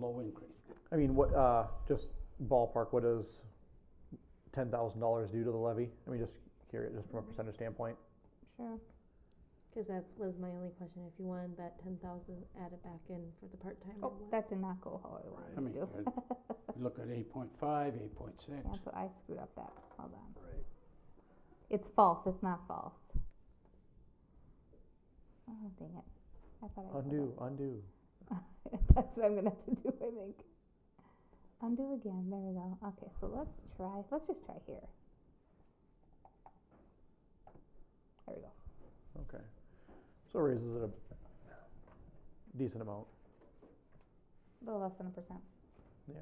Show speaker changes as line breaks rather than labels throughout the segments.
low increase.
I mean, what, uh, just ballpark, what does ten thousand dollars do to the levy? I mean, just curious, just from a percentage standpoint.
Sure. Cause that was my only question, if you wanted that ten thousand added back in for the part-time or
Oh,
what?
that did not go how I
I
wanted
mean,
to do.
uh, look at eight point five, eight point six.
That's what I screwed up that, hold on. It's false, it's not false. Oh, dang it. I thought I. put
Undo, undo.
it. That's what I'm gonna have to do, I think. Undo again, there we go. Okay, so let's try, let's just try here. There we go.
Okay. So it raises it a decent amount,
A little less than a percent.
yeah.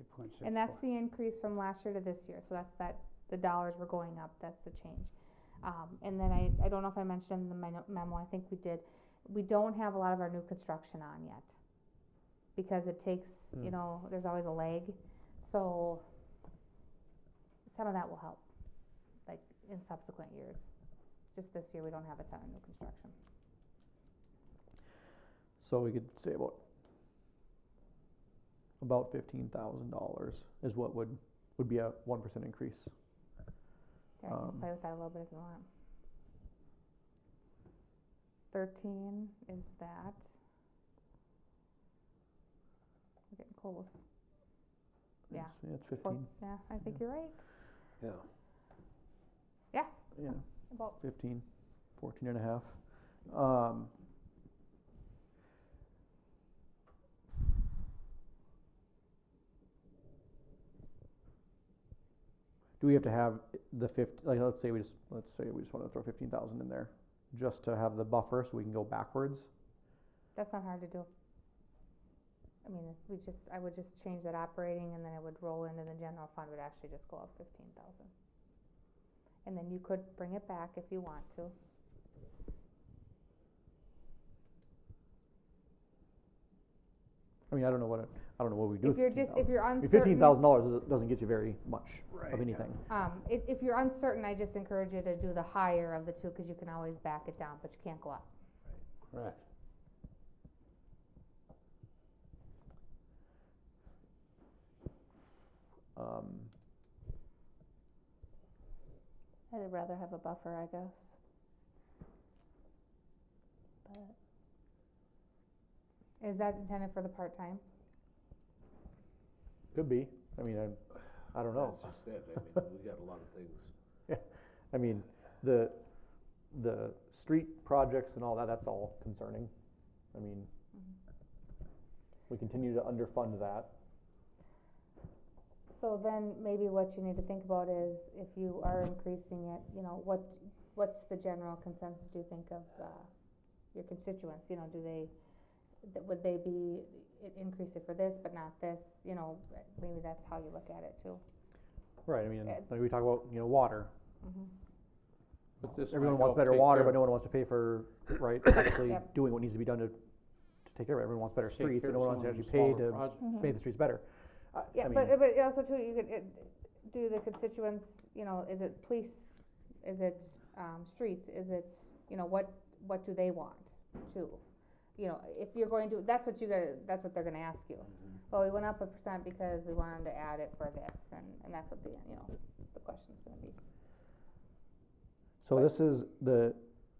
Eight point six.
And that's the increase from last year to this year, so that's that, the dollars were going up, that's the change. Um, and then I, I don't know if I mentioned in the meno- memo, I think we did, we don't have a lot of our new construction on yet. Because it takes, you
Mm.
know, there's always a lag, so some of that will help, like in subsequent years. Just this year, we don't have a ton of new construction.
So we could say about about fifteen thousand dollars is what would would be a one percent increase.
There, I
Um,
can play with that a little bit if you want. Thirteen is that. We're getting close. Yeah.
It's- It's
Four,
fifteen,
yeah, I think you're right.
Yeah,
yeah,
About,
fifteen, fourteen and a half. Um, do we have to have i- the fifty, like, let's say we just, let's say we just wanna throw fifteen thousand in there, just to have the buffer so we can go backwards?
that's not hard to do. I mean, if we just, I would just change that operating and then it would roll into the general fund, would actually just go up fifteen thousand. And then you could bring it back if you want to.
I mean, I don't know what, it- I don't know what we do.
If
with
you're just, if
$15,000.
you're
I mean,
uncertain.
fifteen thousand dollars doesn't, doesn't get you very much
Right.
of anything.
Um, if, if you're uncertain, I just encourage you to do the higher of the two, cause you can always back it down, but you can't go up.
Correct.
Um,
I'd rather have a buffer, I guess. But
Is that intended for the part-time?
could be, I mean, I, I don't know.
that's just it, I mean, we got a lot of things.
I mean, the, the street projects and all that, that's all concerning. I mean,
Mm-hmm.
we continue to underfund that.
So then maybe what you need to think about is if you are increasing it, you know, what, what's the general consensus do you think of, uh, your constituents, you know, do they, th- would they be, i- increase it for this but not this, you know, maybe that's how you look at it too.
Right, I mean,
Uh,
like we talk about, you know, water.
But this
Everyone
might
wants
help
better
take
water,
care-
but no one wants to pay for, right, actually
Yep.
doing what needs to be done to, to take care of it. Everyone wants better
take
streets,
care of
but no one wants to
some
actually
of
pay
the smaller
to
projects.
make the streets better. I- I
Uh, Yeah,
mean,
but, but also too, you could, it, do the constituents, you know, is it police, is it, um, streets, is it, you know, what, what do they want too? You know, if you're going to, that's what you gotta, that's what they're gonna ask you. Well, we went up a percent because we wanted to add it for this, and, and that's what the, you know, the question's gonna be.
So this is the,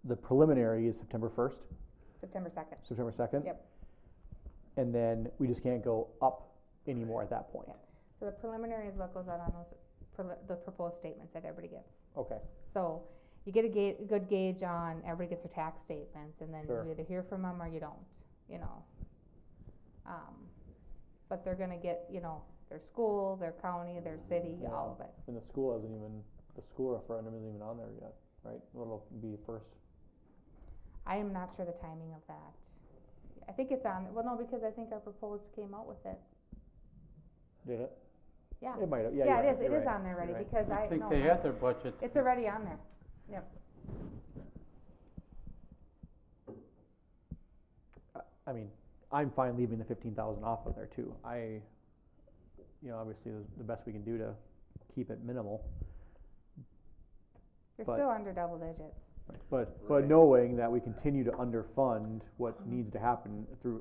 the preliminary is September first,
September second,
September second.
Yep.
And then we just can't go up anymore at that point.
Yep. so the preliminary is what goes out on those, preli- the proposed statements that everybody gets.
Okay.
So you get a ga- good gauge on, everybody gets their tax statements, and then
Sure.
you either hear from them or you don't, you know. Um, but they're gonna get, you know, their school, their county, their city, all of it.
And the school hasn't even, the school referendum isn't even on there yet, right? It'll be first.
I am not sure the timing of that. I think it's on, well, no, because I think our proposed came out with it,
Did it?
yeah.
It might have, yeah,
Yeah,
you're
it
right,
is, it
you're
is
right,
on there
you're
already,
right.
because I,
I think
no,
they
I-
had their budget.
it's already on there,
I mean, I'm fine leaving the fifteen thousand off of there too. I, you know, obviously, the, the best we can do to keep it minimal.
you're
But-
still under double digits.
But,
Right.
but knowing that we continue to underfund what needs to happen through